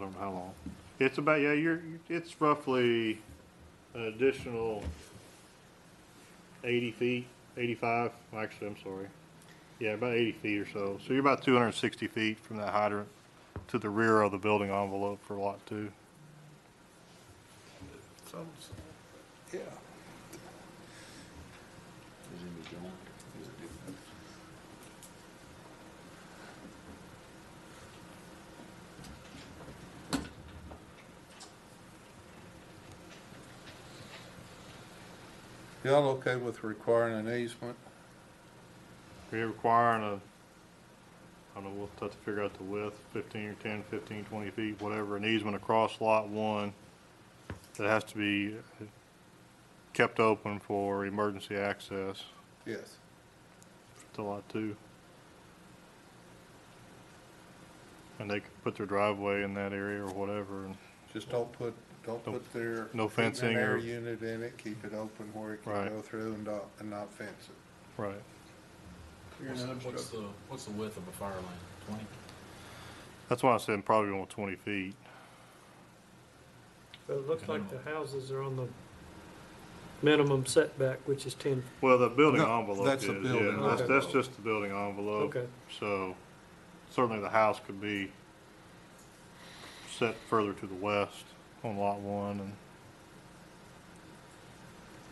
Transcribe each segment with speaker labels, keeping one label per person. Speaker 1: I don't know how long. It's about, yeah, you're, it's roughly an additional eighty feet, eighty-five, actually, I'm sorry. Yeah, about eighty feet or so. So you're about two hundred and sixty feet from that hydrant to the rear of the building envelope for lot two.
Speaker 2: So, yeah. Y'all okay with requiring an easement?
Speaker 1: We're requiring a, I don't know, we'll have to figure out the width, fifteen or 10, 15, 20 feet, whatever, an easement across lot one that has to be kept open for emergency access
Speaker 2: Yes.
Speaker 1: to lot two. And they could put their driveway in that area or whatever, and
Speaker 2: Just don't put, don't
Speaker 1: No-
Speaker 2: put their.
Speaker 1: no
Speaker 2: heat and
Speaker 1: fencing
Speaker 2: air
Speaker 1: or-
Speaker 2: Unit in it, keep it open where it can
Speaker 1: Right.
Speaker 2: go through and not, and not fence it.
Speaker 1: right.
Speaker 3: What's what's the, what's the width of a fire lane? Twenty?
Speaker 1: That's why I said probably only twenty feet.
Speaker 4: But it looks like the houses are on the minimum setback, which is ten.
Speaker 1: Well, the building
Speaker 2: No,
Speaker 1: envelope
Speaker 2: that's
Speaker 1: is,
Speaker 2: the building
Speaker 1: yeah, that's, that's
Speaker 2: envelope.
Speaker 1: just the building envelope.
Speaker 4: Okay.
Speaker 1: So certainly the house could be set further to the west on lot one and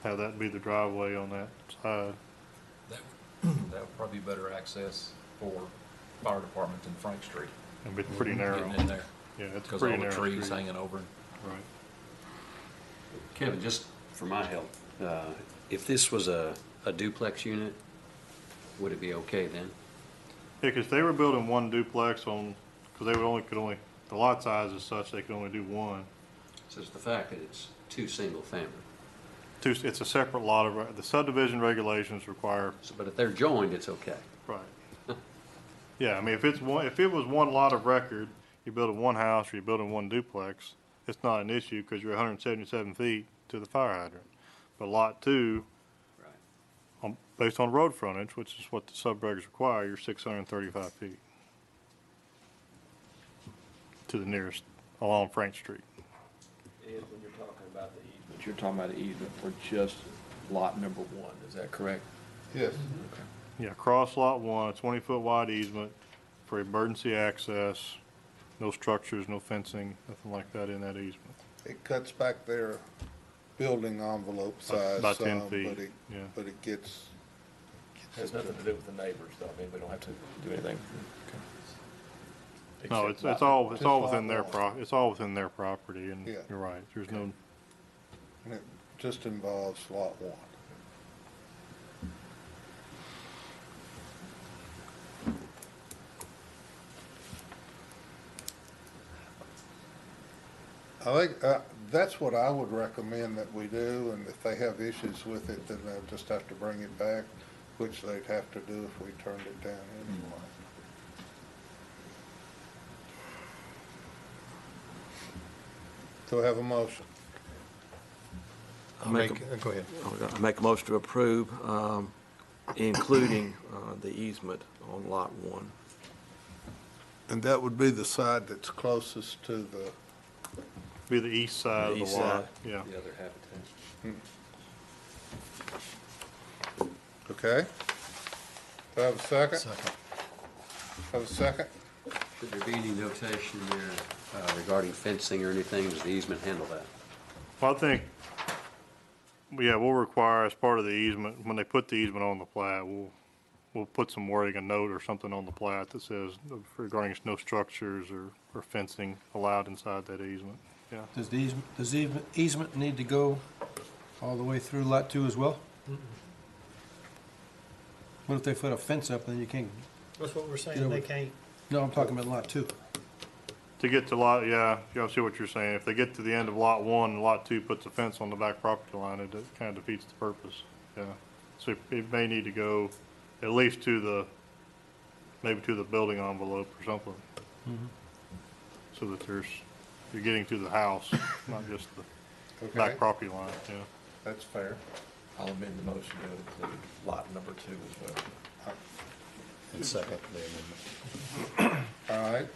Speaker 1: have that be the driveway on that side.
Speaker 3: That, that would probably be better access for fire department than Frank Street.
Speaker 1: It'd be pretty narrow.
Speaker 3: Getting in there,
Speaker 1: Yeah, it's a
Speaker 3: Mm-hmm. because all
Speaker 1: pretty
Speaker 3: the
Speaker 1: narrow
Speaker 3: trees
Speaker 1: street.
Speaker 3: hanging over.
Speaker 1: Right.
Speaker 5: Kevin, just for my help, uh, if this was a a duplex unit, would it be okay then?
Speaker 1: Yeah, because they were building one duplex on, because they would only, could only, the lot size is such, they could only do one.
Speaker 5: So it's the fact that it's two single family.
Speaker 1: Two, it's a separate lot of, the subdivision regulations require
Speaker 5: So, but if they're joined, it's okay.
Speaker 1: Right. Yeah, I mean, if it's one, if it was one lot of record, you're building one house or you're building one duplex, it's not an issue because you're hundred and seventy-seven feet to the fire hydrant. But lot two,
Speaker 5: Right.
Speaker 1: on, based on road frontage, which is what the subregs require, you're six hundred and thirty-five feet to the nearest, along Frank Street.
Speaker 6: Ed, when you're talking about the E. easement, you're talking about the easement for just lot number one, is that correct?
Speaker 2: Yes.
Speaker 1: Yeah, cross lot one, a twenty-foot wide easement for emergency access, no structures, no fencing, nothing like that in that easement.
Speaker 2: It cuts back their building envelope size
Speaker 1: About 10
Speaker 2: some, but
Speaker 1: feet,
Speaker 2: it,
Speaker 1: yeah.
Speaker 2: but it gets.
Speaker 6: Has nothing to do with the neighbors, though, I mean, we don't have to do anything.
Speaker 1: No,
Speaker 6: Except
Speaker 1: it's, it's
Speaker 6: lot-
Speaker 1: all, it's
Speaker 2: Just
Speaker 1: all
Speaker 2: lot
Speaker 1: within their
Speaker 2: one.
Speaker 1: pro, it's all within their property, and
Speaker 2: Yeah.
Speaker 1: you're right, there's no,
Speaker 2: and It just involves lot one. I think, uh, that's what I would recommend that we do, and if they have issues with it, then they'll just have to bring it back, which they'd have to do if we turned it down anyway. Do I have a motion?
Speaker 7: I make,
Speaker 2: Go ahead.
Speaker 7: I make a motion to approve, um, including, uh, the easement on lot one.
Speaker 2: And that would be the side that's closest to the,
Speaker 1: be the east side of the
Speaker 7: east
Speaker 1: lot,
Speaker 7: side.
Speaker 1: yeah.
Speaker 5: The other habitat.
Speaker 2: okay? Do I have a second? Second. Have a second?
Speaker 5: Should there be any notation there uh, regarding fencing or anything? Does the easement handle that?
Speaker 1: Well, I think, yeah, we'll require as part of the easement, when they put the easement on the plat, we'll, we'll put some wording, a note or something on the plat that says regarding no structures or, or fencing allowed inside that easement, yeah.
Speaker 8: Does the easement, does the easement- easement need to go all the way through lot two as well? What if they put a fence up, then you can't,
Speaker 4: That's what we're saying, they can't.
Speaker 8: no, I'm talking about lot two.
Speaker 1: To get to lot, yeah, you all see what you're saying, if they get to the end of lot one, and lot two puts a fence on the back property line, it kind of defeats the purpose, yeah. So it- it may need to go at least to the, maybe to the building envelope or something. So that there's, you're getting to the house, not just the
Speaker 2: Okay,
Speaker 1: back property line, yeah.
Speaker 2: that's fair.
Speaker 6: I'll amend the motion to include lot number two as well.
Speaker 2: All right,